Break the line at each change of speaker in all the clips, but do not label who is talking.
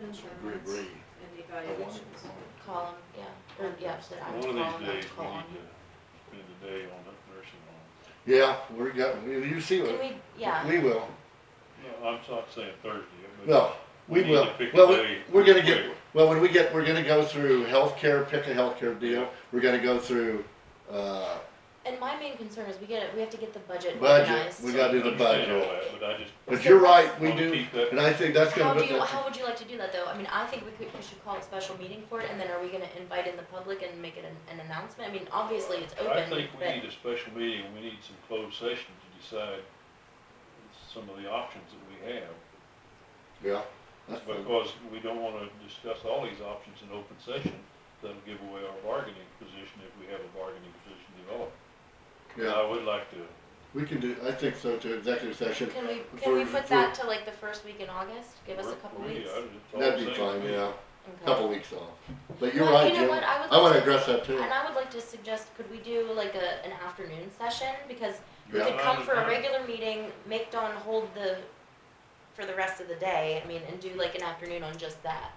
insurance
Agree, agree.
and the
I wanted
evaluations.
to know.
Call them, yeah, or, yeah, so that I
One
would
of
call
these
them, I
days,
would
we
call
need
on
to spend a day on that nursing home.
Yeah, we're got, you see,
you. Can
what-
we, yeah,
we will,
No, I'm not saying Thursday, but
no, we
We need
will,
to pick a
well, we-
day
we're gonna
where-
get, well, when we get, we're gonna go through healthcare, pick a healthcare deal, we're gonna go through, uh,
and my main concern is we get it, we have to get the budget
budget,
organized.
we
I
gotta do the
understand all
budget.
that, but I just
But you're right, we
wanna
do,
keep that.
and I think that's
How
gonna
do
put
you,
that,
how would you like to do that though? I mean, I think we could, we should call a special meeting for it and then are we gonna invite in the public and make it an, an announcement? I mean, obviously it's
I
open,
think we
but,
need a special meeting, we need some closed session to decide some of the options that we have.
yeah. that's fine.
Because we don't wanna discuss all these options in open session, that'll give away our bargaining position if we have a bargaining position developed. And
Yeah,
I would like to,
we can do, I think so, to executive session,
can we, can we
for-
put that to like the first week in August? Give us a
work
couple
for me,
weeks?
I would- it's all
that'd
the
be
same to
fine,
me.
yeah,
Okay.
couple weeks off, but you're
Well,
right,
you know
Jim,
what, I would
I wanna
like to-
address that too.
And I would like to suggest, could we do like a, an afternoon session? Because we
Yeah.
could come for a
Yeah.
regular meeting, make Dawn hold the, for the rest of the day, I mean, and do like an afternoon on just that.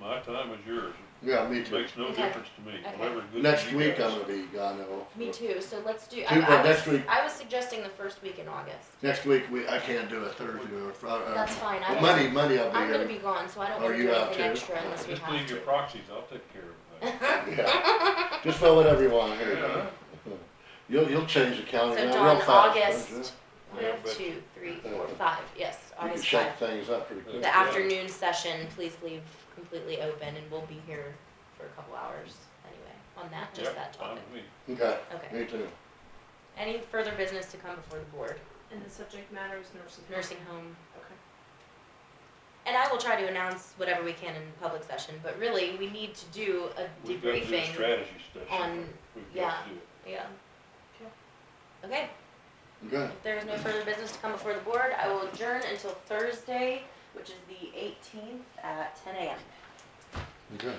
My time is yours,
Yeah, me
it
too.
makes no
Okay.
difference to me,
Okay.
whatever's good for
Next
you
week I'm
guys.
gonna be gone, though.
Me too, so let's do, I,
Do that
I
next
was,
week.
I was suggesting the first week in August.
Next week, we, I can't do a Thursday or Friday. Uh,
That's fine, I
Well,
don't-
Monday, Monday I'll
I'm gonna
be
be
here.
gone, so I don't
Are
wanna
you
do
out
anything
too?
extra unless we
Just leave
have
your
to.
proxies, I'll take care of that.
Yeah. Just throw whatever you want here. uh,
Yeah.
You'll, you'll change the calendar
So
now real
Dawn,
fast. don't you?
August, one,
Yeah, but-
two, three, four, five, yes,
You can
August five.
shake things up pretty quick.
Yeah.
The afternoon session, please leave completely open and we'll be here for a couple hours anyway, on that, just
Yep,
that
fine
topic.
with me.
Okay,
Okay,
me too.
any further business to come before the board?
And the subject matter is nursing. home.
Nursing home,
Okay.
and I will try to announce whatever we can in public session, but really, we need to do a
We've got to do a
debriefing.
strategy session.
on-
We've got to do it.
Yeah.
Okay.
Okay,
Okay,
if there is no further business to come before the board, I will adjourn until Thursday, which is the eighteenth at ten AM.
okay.